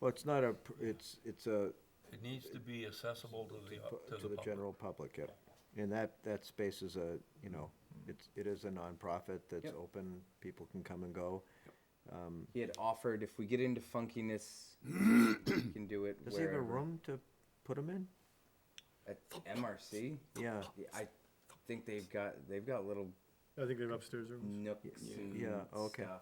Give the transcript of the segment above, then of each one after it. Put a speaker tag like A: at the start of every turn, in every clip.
A: Well, it's not a, pr- it's, it's a,
B: It needs to be accessible to the,
A: pu-
B: to the public.
A: general public, yep. And that, that space is a, you know, it's, it is a nonprofit that's
C: Yep.
A: open, people can come and go.
C: He had offered if we get into funkiness, we can do it.
A: Does he have a
C: wherever.
A: room to put them in?
C: at MRC?
A: Yeah,
C: Yeah, I think they've got they've got little
D: I think they're upstairs rooms.
C: nooks and
A: Yeah, okay.
C: stuff.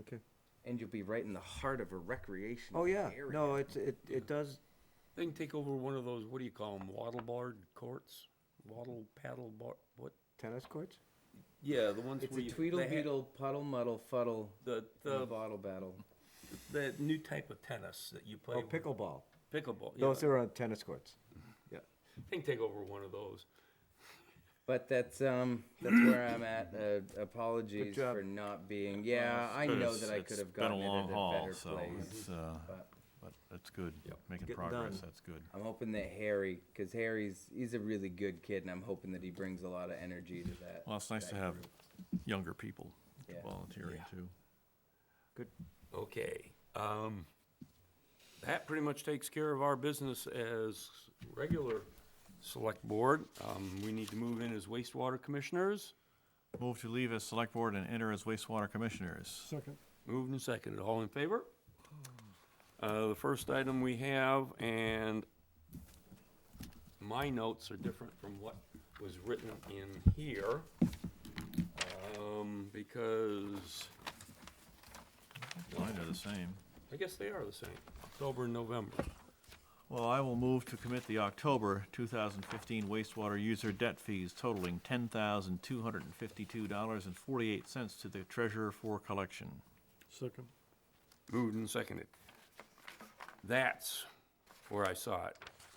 A: okay.
C: And you'll be right in the heart of a recreational
A: Oh, yeah,
C: area.
A: no, it's, it, it does,
B: They can take over one of those, what do you call them, waddle board courts? Waddle paddle bar, what?
A: tennis courts?
B: Yeah, the ones
C: It's
B: where
C: a
B: you.
C: Tweedle
B: they ha-
C: Beetle puddle muddle fuddle
B: The,
C: in a
B: the,
C: bottle battle.
B: the new type of tennis that you play.
A: Oh,
B: with.
A: pickleball.
B: Pickleball, yeah.
A: Those are on tennis courts. Yeah.
B: They can take over one of those.
C: But that's um that's where I'm at. Uh, apologies
A: job.
C: for not being. Yeah, I know that I could have gotten it at a better place.
E: It's, uh,
C: but-
E: but it's good, making
A: Getting
E: progress,
A: done.
E: that's good.
C: I'm hoping that Harry, because Harry's he's a really good kid, and I'm hoping that he brings a lot of energy to that.
E: Well, it's nice to have younger people
C: Yeah.
E: volunteering
B: Yeah.
E: too.
B: Okay, um, that pretty much takes care of our business as regular select board. Um, we need to move in as wastewater commissioners.
E: Move to leave as select board and enter as wastewater commissioners.
D: Second.
B: Moved and seconded, all in favor? Uh, the first item we have, and my notes are different from what was written in here. Um, because
E: Mine are the same.
B: I guess they are the same, October and November.
E: Well, I will move to commit the October 2015 wastewater user debt fees totaling $10,252.48 to the treasurer for collection.
D: Second.
B: Moved and seconded. That's where I saw it.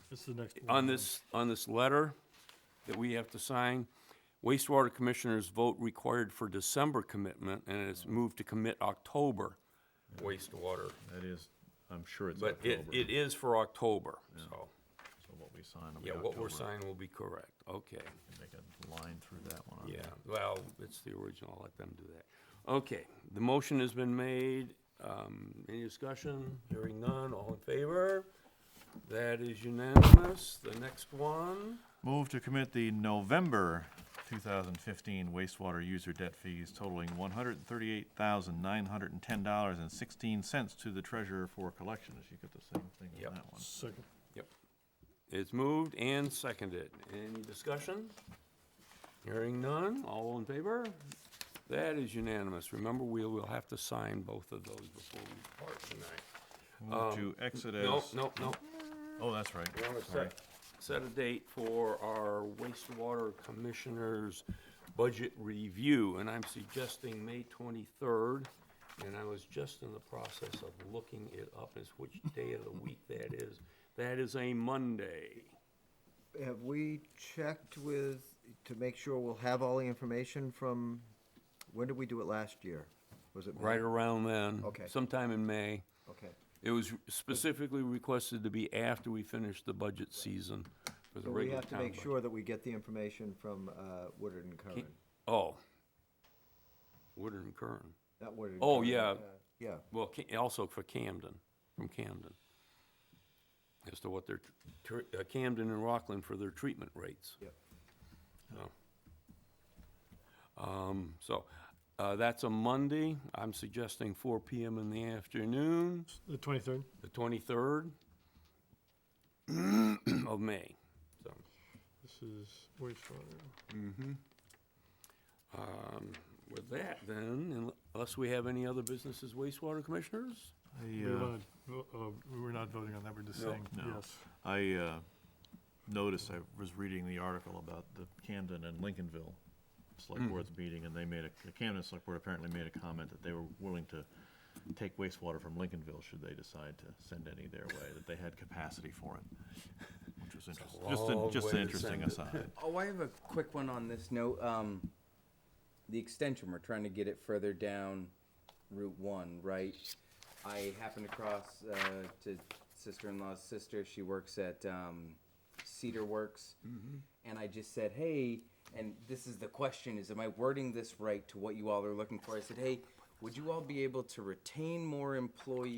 D: This is the next one.
B: On this, on this letter that we have to sign, wastewater commissioners vote required for December commitment, and it's moved to commit October wastewater.
E: That is, I'm sure it's
B: But it,
E: October,
B: it is for October, so,
E: so what we sign will be
B: yeah, what we're
E: October.
B: signing will be correct, okay.
E: Make a line through that one. on
B: Yeah,
E: there.
B: well, it's the original, I'll let them do that. Okay, the motion has been made, um, any discussion? Hearing none, all in favor? That is unanimous, the next one,
E: Move to commit the November 2015 wastewater user debt fees totaling $138,910.16 to the treasurer for collection. She got the same thing
B: Yep.
E: on that one.
D: Second.
B: it's moved and seconded, any discussion? Hearing none, all in favor? That is unanimous, remember, we will have to sign both of those before we part tonight.
E: Move to exit as.
B: Um, No, no, no,
E: Oh, that's right.
B: We want to
E: Sorry.
B: set, set a date for our wastewater commissioner's budget review, and I'm suggesting May twenty-third. And I was just in the process of looking it up as which day of the week that is. That is a Monday.
A: Have we checked with, to make sure we'll have all the information from, when did we do it last year? Was it?
B: Right around then.
A: Okay.
B: Sometime in May.
A: Okay.
B: It was specifically requested to be after we finished the budget season for the
A: So we
B: regular
A: have to
B: town
A: make
B: budget.
A: sure that we get the information from uh, Woodard and Curran,
B: Oh. Woodard and Kern.
A: not Woodard. and
B: Oh,
A: Curran,
B: yeah.
A: uh, Yeah,
B: Well, Ca- also for Camden, from Camden, as to what their, tr- tr- uh, Camden and Rockland for their treatment rates.
A: Yep.
B: So. Um, so, uh, that's a Monday. I'm suggesting four PM in the afternoon,
D: The twenty-third.
B: the twenty-third of May. So,
D: This is wastewater.
B: um, with that then, unless we have any other businesses wastewater commissioners?
E: I,
D: We
E: uh,
D: wanna vo- uh, we we're not voting on that, we're just
B: No.
D: saying,
E: No.
D: yes.
E: I uh, noticed, I was reading the article about the Camden and Lincolnville
B: Hmm.
E: Select Board's meeting, and they made a, the Camden Select Board apparently made a comment that they were willing to take wastewater from Lincolnville should they decide to send any their way, that they had capacity for it, which was interesting. Just,
B: long
E: an- just
B: way
E: an
B: to
E: interesting
B: send it.
E: aside.
C: Oh, I have a quick one on this note. Um, the extension, we're trying to get it further down Route One, right? I happened across, uh, to sister-in-law's sister, she works at, um, Cedar Works. And I just said, hey, and this is the question, is am I wording this right to what you all are looking for? I said, hey, would you all be able to retain more employees?